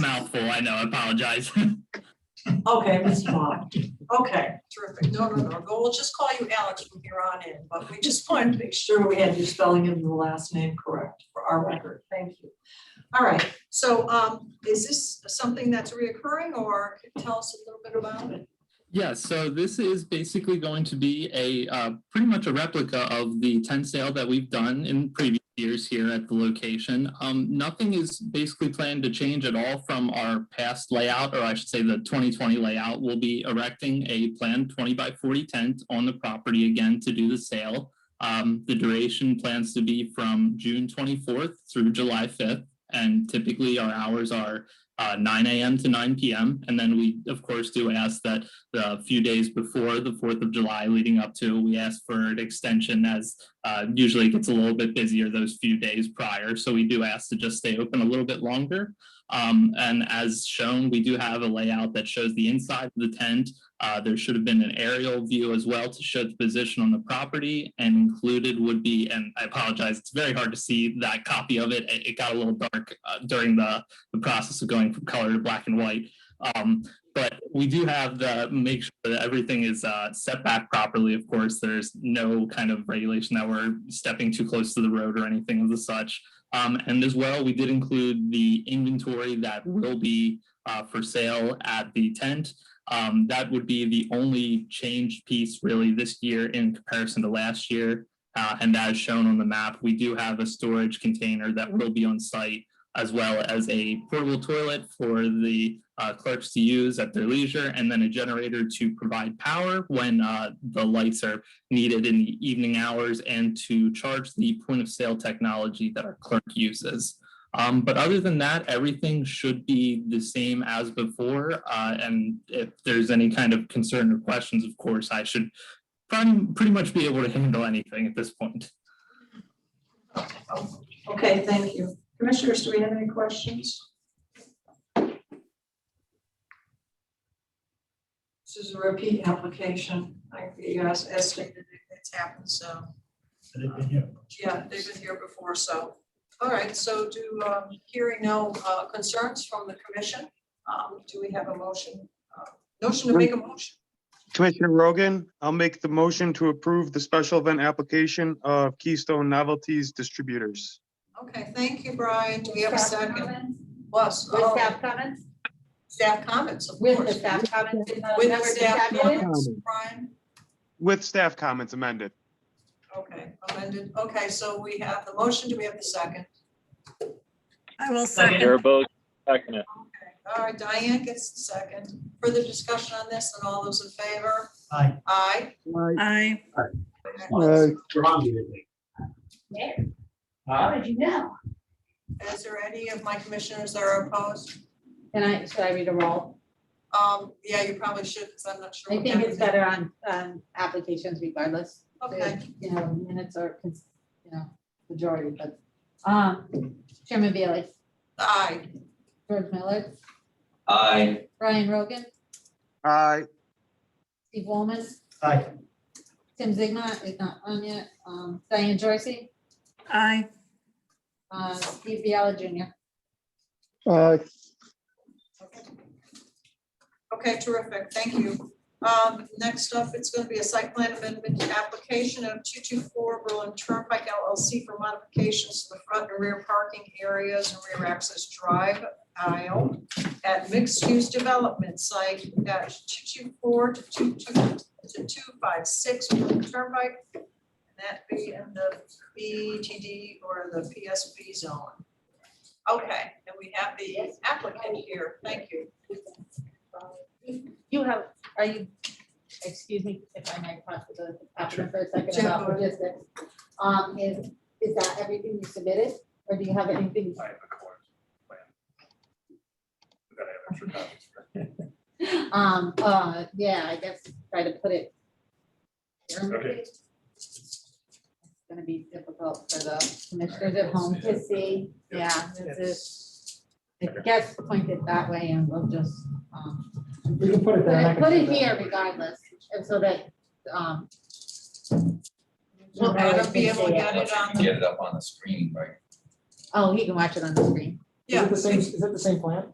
mouthful. I know. I apologize. Okay, Ms. Vaughn. Okay, terrific. No, no, no. Go, we'll just call you Alex from here on in, but we just wanted to make sure we had your spelling and the last name correct for our record. Thank you. All right, so um, is this something that's reoccurring or can you tell us a little bit about it? Yeah, so this is basically going to be a uh, pretty much a replica of the tent sale that we've done in previous years here at the location. Um, nothing is basically planned to change at all from our past layout, or I should say the 2020 layout. We'll be erecting a planned 20 by 40 tent on the property again to do the sale. Um, the duration plans to be from June 24th through July 5th, and typically our hours are uh, 9 a.m. to 9 p.m. And then we, of course, do ask that the few days before the Fourth of July leading up to, we asked for an extension as uh, usually it gets a little bit busier those few days prior. So we do ask to just stay open a little bit longer. Um, and as shown, we do have a layout that shows the inside of the tent. Uh, there should have been an aerial view as well to show the position on the property and included would be, and I apologize, it's very hard to see that copy of it. It, it got a little dark uh, during the, the process of going from color to black and white. Um, but we do have the make sure that everything is uh, set back properly. Of course, there's no kind of regulation that we're stepping too close to the road or anything of the such. Um, and as well, we did include the inventory that will be uh, for sale at the tent. Um, that would be the only change piece really this year in comparison to last year. Uh, and as shown on the map, we do have a storage container that will be on site as well as a portable toilet for the uh, clerks to use at their leisure, and then a generator to provide power when uh, the lights are needed in the evening hours and to charge the point of sale technology that our clerk uses. Um, but other than that, everything should be the same as before. Uh, and if there's any kind of concern or questions, of course, I should pretty, pretty much be able to handle anything at this point. Okay, thank you. Commissioners, do we have any questions? This is a repeat application. I, you guys estimated it's happened, so. Yeah, they've been here before, so, all right, so do, um, hearing no uh, concerns from the commission, um, do we have a motion? uh, Notion to make a motion? Commissioner Rogan, I'll make the motion to approve the special event application of Keystone Novelties Distributors. Okay, thank you, Brian, do we have a Staff second? comments? Plus, With staff comments? staff comments, of course. Oh. With the staff comments? did With Uh, the members staff have it? comments, Brian, With staff comments amended. okay, amended, okay, so we have the motion, do we have the second? I will second. Barebo's second it. Okay, all right, Diane gets the second, further discussion on this, and all those in favor? Aye. Aye. Aye. Okay. Mayor, Aye. did you know? Is there any of my commissioners that are opposed? And I, should I read a roll? Um, yeah, you probably should, because I'm not sure. I what think it's that better on, um, applications regardless. is. Okay, You know, minutes are, cons- you know, majority, but, um, Chairman Bailey, aye, George Miller, Aye. Brian Rogan, Aye, Steve Woolman, Aye. Tim Zigma is not on yet, um, Diane Jorsey, Aye. uh, Steve Biella Jr. okay, terrific, thank you. Um, next up, it's gonna be a site plan amendment application of two-two-four Berlin Turnpike LLC for modifications to the front and rear parking areas and rear access drive aisle at mixed-use development site dash two-two-four to two-two, to two-five-six Berlin Turnpike. And that be in the BTD or the PSB zone. Okay, and we have the applicant here, thank you. You have, are you, excuse me, if I might talk to the applicant for a Sure. second about logistics. Um, is, is that everything you submitted, or do you have anything? I have a court plan. We gotta have extra copies. Um, uh, yeah, I guess try to put it. Okay. It's gonna be difficult for the commissioners at home to see, yeah, this is, it gets pointed that way and we'll just, um, We can put it there. I can put see it that. here regardless, and so that, um. Well, I don't be able to get it on the, Get it up on the screen, right? Oh, he can watch it on the screen. Is yeah, it the same, is it the same plan?